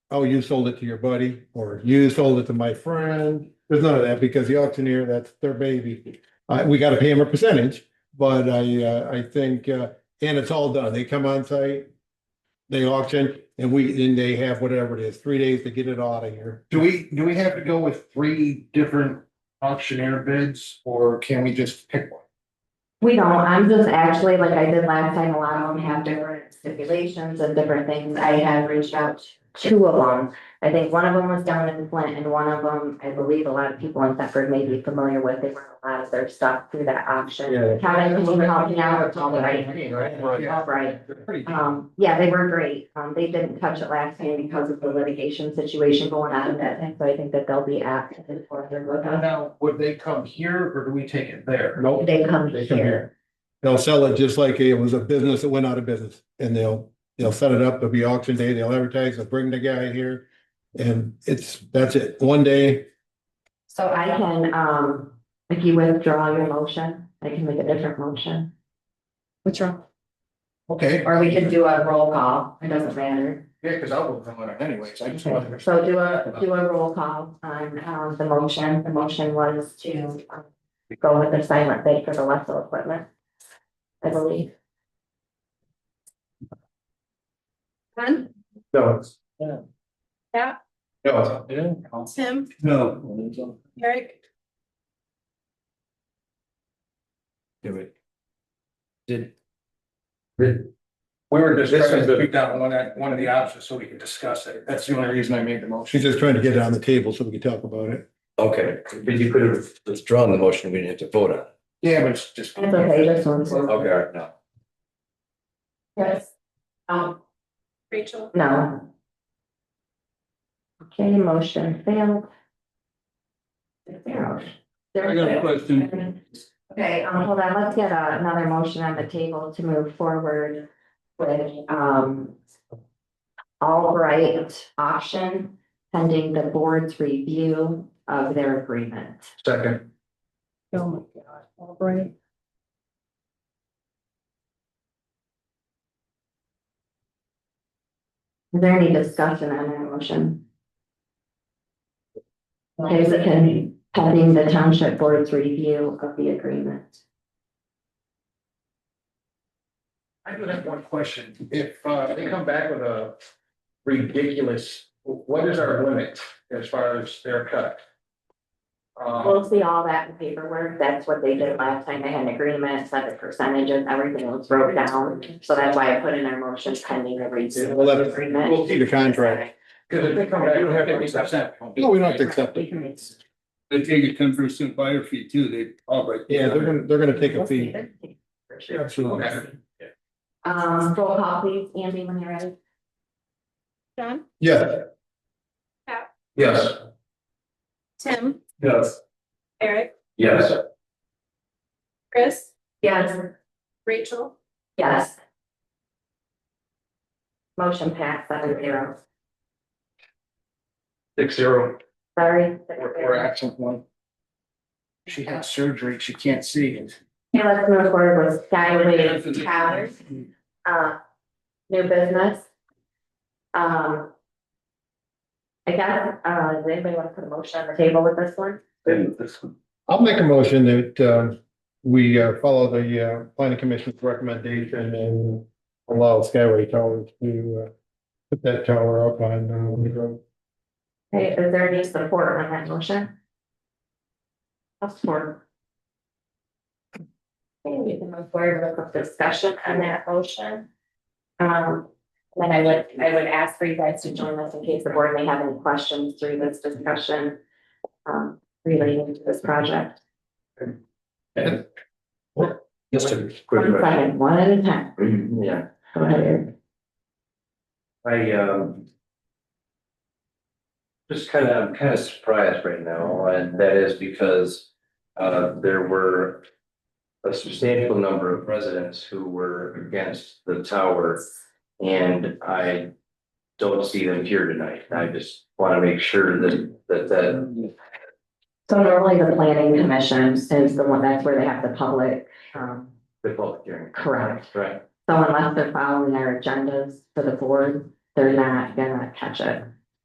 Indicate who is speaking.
Speaker 1: oh, you sold it to your buddy, or you sold it to my friend. There's none of that because the auctioneer, that's their baby. Uh, we gotta pay him a percentage, but I, uh, I think, uh, and it's all done. They come on site. They auction and we, then they have whatever it is, three days to get it out of here.
Speaker 2: Do we, do we have to go with three different auctioneer bids or can we just pick one?
Speaker 3: We don't, I'm just actually, like I did last time, a lot of them have different stipulations and different things. I have reached out to two of them. I think one of them was down in Flint and one of them, I believe a lot of people in Thetford may be familiar with. They run a lot of their stuff through that auction.
Speaker 1: Yeah.
Speaker 3: Kevin, can you help me out? It's all right.
Speaker 2: Right.
Speaker 3: All right.
Speaker 1: They're pretty cheap.
Speaker 3: Um, yeah, they were great. Um, they didn't touch it last time because of the litigation situation going on at that time. So I think that they'll be apt to further with us.
Speaker 2: Now, would they come here or do we take it there?
Speaker 1: Nope.
Speaker 3: They come
Speaker 1: They come
Speaker 3: here.
Speaker 1: here. They'll sell it just like it was a business that went out of business and they'll, they'll set it up. There'll be auction day. They'll advertise, they'll bring the guy here. And it's, that's it. One day,
Speaker 3: So I can, um, if you withdraw your motion, I can make a different motion. Withdraw.
Speaker 2: Okay,
Speaker 3: Or we can do a roll call, it doesn't matter.
Speaker 2: yeah, because I'll vote on it anyways. I just wanted to.
Speaker 3: So do a, do a roll call on, um, the motion, the motion was to um, go with the silent bid for the Wessel equipment. I believe.
Speaker 4: Glenn,
Speaker 2: No.
Speaker 4: Yeah.
Speaker 2: No.
Speaker 4: Tim,
Speaker 2: No.
Speaker 4: Eric,
Speaker 2: Do it. Did. We were just trying to pick out one, act- one of the options so we could discuss it. That's the only reason I made the motion.
Speaker 1: she's just trying to get it on the table so we can talk about it.
Speaker 5: Okay, but you could have withdrawn the motion, we didn't have to vote on it.
Speaker 2: Yeah, but it's just.
Speaker 3: That's okay, this one's.
Speaker 5: Okay, all right, now,
Speaker 3: Yes. Um,
Speaker 4: Rachel,
Speaker 3: no. Okay, motion failed. Zero.
Speaker 6: I got a question.
Speaker 3: Okay, um, hold on, let's get uh, another motion on the table to move forward with, um. Albright auction pending the board's review of their agreement.
Speaker 2: Second.
Speaker 4: oh my God, Albright.
Speaker 3: Is there any discussion on that motion? Okay, so can, pending the township board's review of the agreement.
Speaker 2: I do have one question. If uh they come back with a ridiculous, what is our limit as far as their cut? Uh, Um
Speaker 3: We'll see all that in paperwork, that's what they did last time, they had an agreement, set the percentages, everything was broke down, so that's why I put in our motion pending the review
Speaker 1: We'll
Speaker 3: of
Speaker 1: have-
Speaker 3: the agreement.
Speaker 1: we'll see the contract.
Speaker 2: because if they come back, you don't have to accept.
Speaker 1: No, we don't have to accept it.
Speaker 6: They take a ten percent buyer fee too, they, all right.
Speaker 1: Yeah, they're gonna, they're gonna take a fee.
Speaker 3: For sure.
Speaker 1: Absolutely.
Speaker 3: Um, roll call please, Andy, when you're ready.
Speaker 4: John,
Speaker 1: Yeah,
Speaker 2: Yes.
Speaker 4: Tim,
Speaker 2: Yes.
Speaker 4: Eric,
Speaker 5: yes,
Speaker 4: Chris,
Speaker 3: Yes.
Speaker 4: Rachel,
Speaker 3: Yes. Motion passed seven zero,
Speaker 2: Six zero,
Speaker 3: sorry.
Speaker 2: or or absent one. She had surgery, she can't see it.
Speaker 3: Okay, let's move forward with Skyway Towers. uh, new business. Um. I guess, uh, does anybody want to put a motion on the table with this one?
Speaker 1: I'll make a motion that, um, we, uh, follow the, uh, planning commission's recommendation and allow Skyway Towers to, uh, put that tower up on, uh, Wood Road.
Speaker 3: Okay, is there any support on that motion? I'll support. Okay, we can move forward with the discussion on that motion. Um, then I would, I would ask for you guys to join us in case the board may have any questions through this discussion. Um, relating to this project.
Speaker 5: just a quick
Speaker 3: One
Speaker 5: question.
Speaker 3: second, one at a time.
Speaker 5: Mm, Yeah,
Speaker 3: Go ahead, Eric.
Speaker 5: I, um. Just kind of, I'm kind of surprised right now, and that is because, uh, there were. A substantial number of residents who were against the tower, and I. Don't see them here tonight, I just want to make sure that, that, that
Speaker 3: So normally the planning commission is the one, that's where they have the public, um,
Speaker 5: the public hearing.
Speaker 3: Correct.
Speaker 5: Right.
Speaker 3: so unless they're following their agendas for the board, they're not gonna catch it.